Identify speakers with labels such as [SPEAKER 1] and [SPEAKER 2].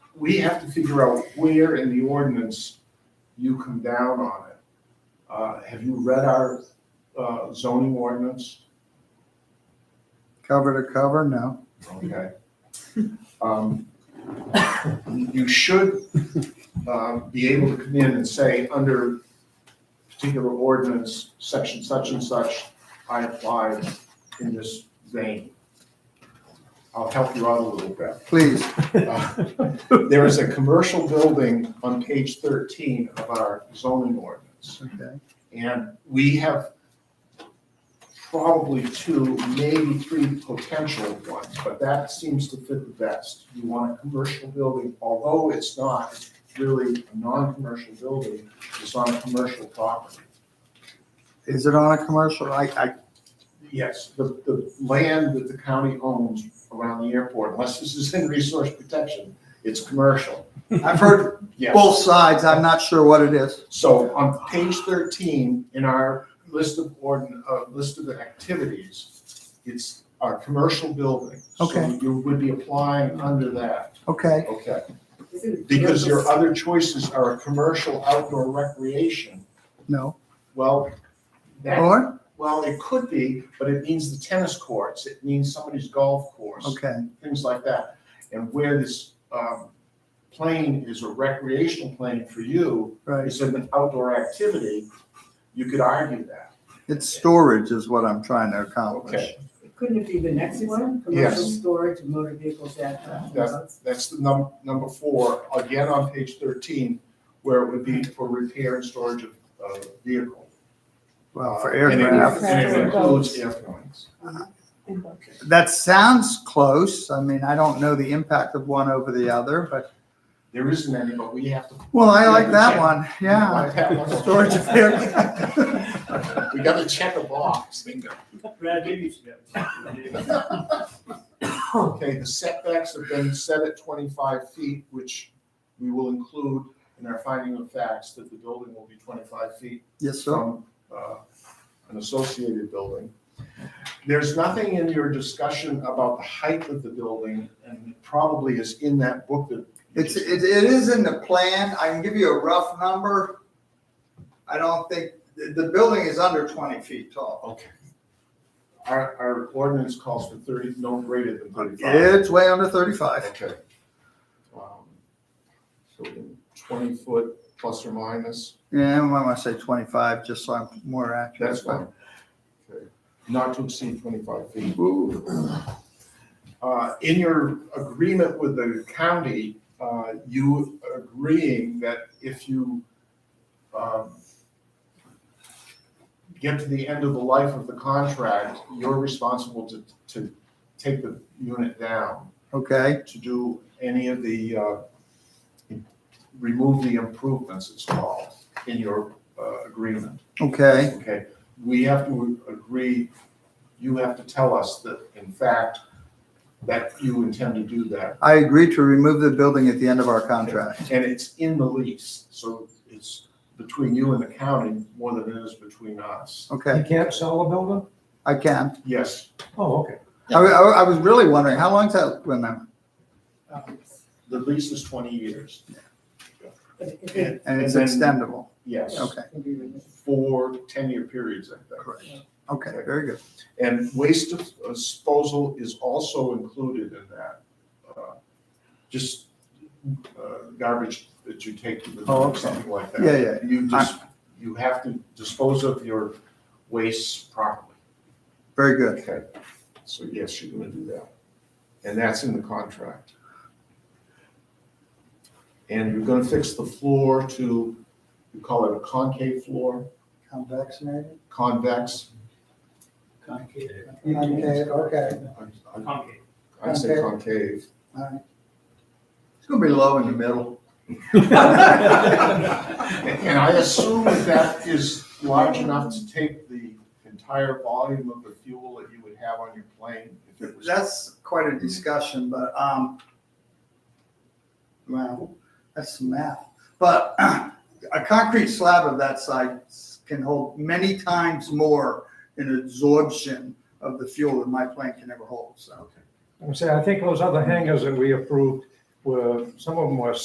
[SPEAKER 1] we have to figure out where in the ordinance you come down on it. Uh, have you read our, uh, zoning ordinance?
[SPEAKER 2] Cover to cover, no.
[SPEAKER 1] Okay. Um, You should, uh, be able to come in and say, under particular ordinance, section such and such, I applied in this vein. I'll help you out a little bit.
[SPEAKER 2] Please,
[SPEAKER 1] Uh, There is a commercial building on page 13 of our zoning ordinance.
[SPEAKER 2] okay.
[SPEAKER 1] And we have probably two, maybe three potential ones, but that seems to fit the best. You want a commercial building, although it's not really a non-commercial building, it's on a commercial property.
[SPEAKER 2] Is it on a commercial? I, I,
[SPEAKER 1] Yes, the, the land that the county owns around the airport, unless this is in resource protection, it's commercial.
[SPEAKER 2] I've heard
[SPEAKER 1] Yes.
[SPEAKER 2] both sides. I'm not sure what it is.
[SPEAKER 1] So on page thirteen, in our list of ordin, uh, list of activities, it's our commercial building. So
[SPEAKER 2] Okay.
[SPEAKER 1] You would be applying under that,
[SPEAKER 2] Okay,
[SPEAKER 1] okay?
[SPEAKER 3] Isn't it
[SPEAKER 1] Because your
[SPEAKER 3] commercial?
[SPEAKER 1] other choices are a commercial outdoor recreation.
[SPEAKER 2] no.
[SPEAKER 1] Well, that,
[SPEAKER 2] Or,
[SPEAKER 1] well, it could be, but it means the tennis courts, it means somebody's golf course
[SPEAKER 2] okay,
[SPEAKER 1] things like that. And where this um, plane is a recreational plane for you,
[SPEAKER 2] right.
[SPEAKER 1] is an outdoor activity, you could argue that.
[SPEAKER 2] It's storage is what I'm trying to accomplish.
[SPEAKER 3] Couldn't it be the next one? Commercial storage of motor vehicles at. uh,
[SPEAKER 1] Yes.
[SPEAKER 3] roads?
[SPEAKER 1] That's the num, number four, again on page thirteen, where it would be for repair and storage of, of vehicle.
[SPEAKER 2] Well, for
[SPEAKER 1] Uh, and it-
[SPEAKER 2] aircraft.
[SPEAKER 1] And it includes airplanes.
[SPEAKER 2] That sounds close. I mean, I don't know the impact of one over the other, but,
[SPEAKER 1] There isn't any, but we have to.
[SPEAKER 2] well, I like that
[SPEAKER 1] Yeah.
[SPEAKER 2] one. Yeah.
[SPEAKER 1] Like that one.
[SPEAKER 2] Storage of aircraft.
[SPEAKER 1] We gotta check a box.
[SPEAKER 4] Brad, maybe you should have.
[SPEAKER 1] Okay, the setbacks have been set at twenty-five feet, which we will include in our finding of facts that the building will be twenty-five feet
[SPEAKER 2] Yes, sir.
[SPEAKER 1] from uh, an associated building. There's nothing in your discussion about the height of the building, and it probably is in that book that.
[SPEAKER 2] It's, it, it is in the plan. I can give you a rough number. I don't think, the, the building is under twenty feet tall.
[SPEAKER 1] Okay. Our, our ordinance calls for thirty, no greater than thirty-five.
[SPEAKER 2] It's way under thirty-five.
[SPEAKER 1] Okay. Um, So twenty foot plus or minus.
[SPEAKER 2] Yeah, I want to say twenty-five, just so I'm more accurate.
[SPEAKER 1] That's fine. Okay. Not to exceed twenty-five feet. Uh, in your agreement with the county, uh, you agreeing that if you, um, get to the end of the life of the contract, you're responsible to, to take the unit down,
[SPEAKER 2] Okay,
[SPEAKER 1] to do any of the, uh, remove the improvements, it's called, in your, uh, agreement.
[SPEAKER 2] okay,
[SPEAKER 1] Okay, we have to agree, you have to tell us that, in fact, that you intend to do that.
[SPEAKER 2] I agree to remove the building at the end of our contract.
[SPEAKER 1] And it's in the lease, so it's between you and the county more than it is between us.
[SPEAKER 2] Okay,
[SPEAKER 5] can't sell a building?
[SPEAKER 2] I can.
[SPEAKER 1] Yes,
[SPEAKER 5] Oh, okay.
[SPEAKER 2] I, I, I was really wondering, how long's that, wait a minute.
[SPEAKER 3] Um,
[SPEAKER 1] the lease is twenty years.
[SPEAKER 3] But if it
[SPEAKER 1] And
[SPEAKER 2] and it's
[SPEAKER 1] then-
[SPEAKER 2] extendable.
[SPEAKER 1] Yes,
[SPEAKER 2] Okay,
[SPEAKER 3] can be removed.
[SPEAKER 1] for ten-year periods, I think.
[SPEAKER 2] okay, very good.
[SPEAKER 1] And waste disposal is also included in that. Uh, Just uh, garbage that you take to the
[SPEAKER 2] Oh,
[SPEAKER 1] dump,
[SPEAKER 2] okay.
[SPEAKER 1] something like that.
[SPEAKER 2] Yeah, yeah.
[SPEAKER 1] You just, you have to dispose of your waste properly.
[SPEAKER 2] Very good.
[SPEAKER 1] Okay. So yes, you're gonna do that. And that's in the contract. And you're gonna fix the floor to, you call it a concave floor,
[SPEAKER 2] Convaccinated?
[SPEAKER 1] convex.
[SPEAKER 2] Concave, okay.
[SPEAKER 1] I- I-
[SPEAKER 4] Concave.
[SPEAKER 1] I'd say concave.
[SPEAKER 2] It's gonna be low in the middle.
[SPEAKER 1] And I assume that that is large enough to take the entire volume of the fuel that you would have on your plane if it was.
[SPEAKER 2] That's quite a discussion, but, um, well, that's some math. But a concrete slab of that size can hold many times more in absorption of the fuel than my plant can ever hold, so.
[SPEAKER 5] I'm saying, I think those other hangars that we approved were, some of them were